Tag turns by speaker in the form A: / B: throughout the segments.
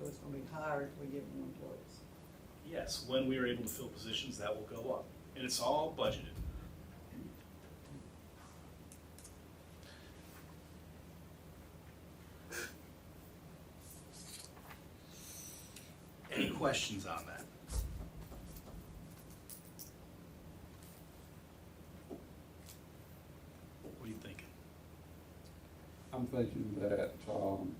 A: was gonna be higher if we give them employees.
B: Yes, when we are able to fill positions, that will go up, and it's all budgeted. Any questions on that? What are you thinking?
C: I'm thinking that, um,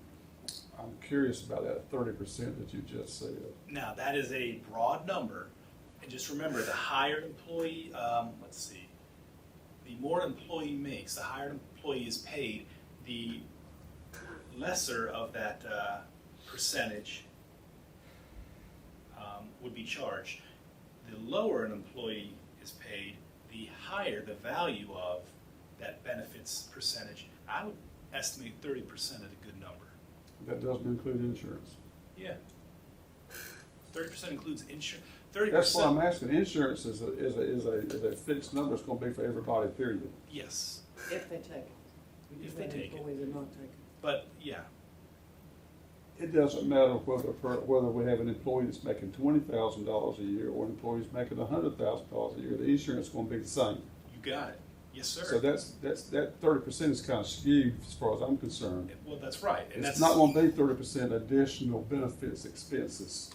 C: I'm curious about that thirty percent that you just said.
B: Now, that is a broad number, and just remember, the higher employee, um, let's see, the more employee makes, the higher employee is paid, the lesser of that, uh, percentage, um, would be charged. The lower an employee is paid, the higher the value of that benefits percentage. I would estimate thirty percent is a good number.
C: That doesn't include insurance.
B: Yeah. Thirty percent includes insurance. Thirty
C: That's why I'm
B: percent.
C: asking, insurance is a, is a, is a, is a fixed number, it's gonna be for everybody, period.
B: Yes,
A: If they take it. We
B: If
A: give
B: they
A: them
B: take it.
A: Employees are not taking it.
B: but yeah,
C: It doesn't matter whether, per- whether we have an employee that's making twenty thousand dollars a year or an employee's making a hundred thousand dollars a year, the insurance is gonna be the same.
B: you got it. Yes, sir.
C: So that's, that's, that thirty percent is kind of skewed as far as I'm concerned.
B: well, that's right, and that's
C: It's not gonna be thirty percent additional benefits expenses,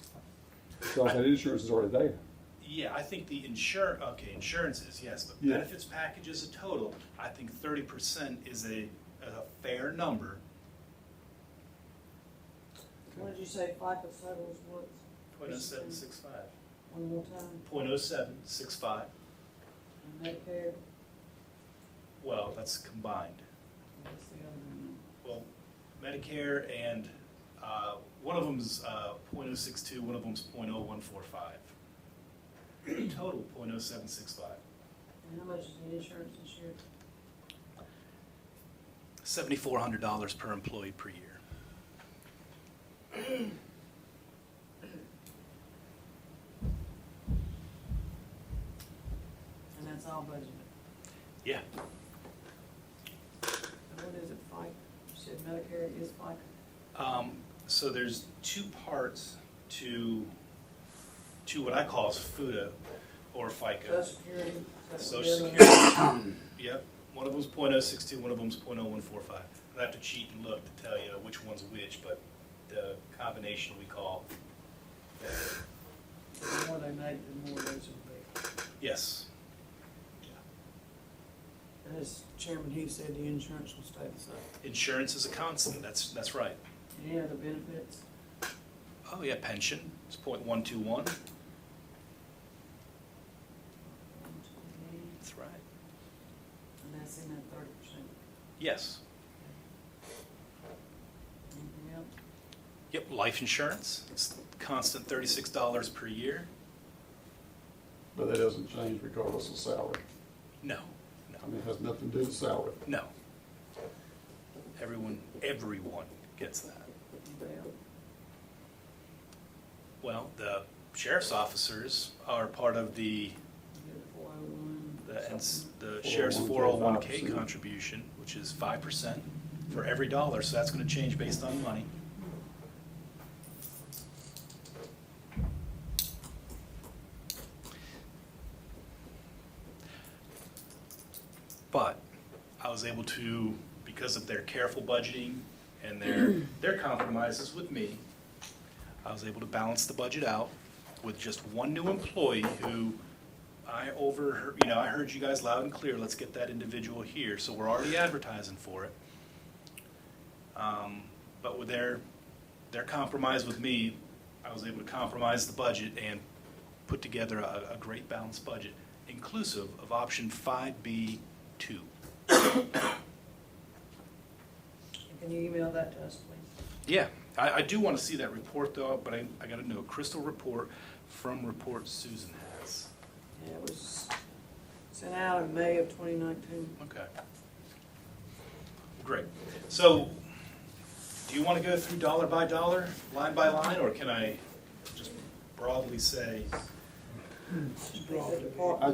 C: because that insurance is already there.
B: yeah. I think the insure okay insurances yes, but
C: Yeah.
B: benefits package as a total. I think thirty percent is a, a fair number.
A: What did you say FICA settles what?
B: Point oh seven six five.
A: One more time,
B: Point oh seven six five.
A: and Medicare,
B: Well, that's combined.
A: that's the other one.
B: Well, Medicare and uh, one of them's uh, 0.062, one of them's 0.0145. Total 0.0765.
A: And how much is the insurance this year?
B: $7,400 per employee per year.
A: And that's all budgeted.
B: Yeah.
A: And what is it, FICA? You said Medicare is FICA.
B: Um, so there's two parts to to what I call is FUTA or FICA.
A: Social Security. is that what
B: Social
A: the other one-
B: Security, yep, one of them's point oh six two, one of them's point oh one four five. I'd have to cheat and look to tell you which one's which, but the combination we call,
A: The more they make, the more they should pay.
B: yes.
A: As Chairman Hughes said, the insurance will stay the same.
B: Insurance is a constant, that's, that's right.
A: Any other benefits?
B: Oh, yeah, pension, it's point one two one.
A: And
B: That's right.
A: that's in that thirty percent.
B: Yes,
A: Anything else?
B: yep, life insurance, it's constant thirty-six dollars per year.
C: But that doesn't change regardless of salary.
B: No, no,
C: I mean, it has nothing to do with salary.
B: no. Everyone, everyone gets that.
A: Anything else?
B: Well, the sheriff's officers are part of the,
A: You get the 401,
B: the, it's
A: something.
B: the sheriff's
C: 401k
B: 401K contribution, which is 5% for every dollar, so that's gonna change based on money. But I was able to, because of their careful budgeting and their, their compromises with me, I was able to balance the budget out with just one new employee who I overheard, you know, I heard you guys loud and clear, let's get that individual here, so we're already advertising for it. Um, But with their, their compromise with me, I was able to compromise the budget and put together a, a great balanced budget, inclusive of option five B two.
A: Can you email that to us, please?
B: Yeah, I, I do want to see that report though, but I, I gotta know, a crystal report from report Susan has.
A: Yeah, it was sent out in May of twenty nineteen.
B: Okay. Great. So, do you want to go through dollar by dollar, line by line, or can I just broadly say
C: I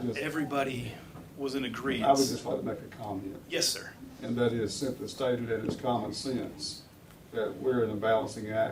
C: just,
B: everybody was in
C: I would
B: agreement?
C: just like to make a comment,
B: Yes, sir.
C: and that is simply stated that it's common sense that we're in a balancing act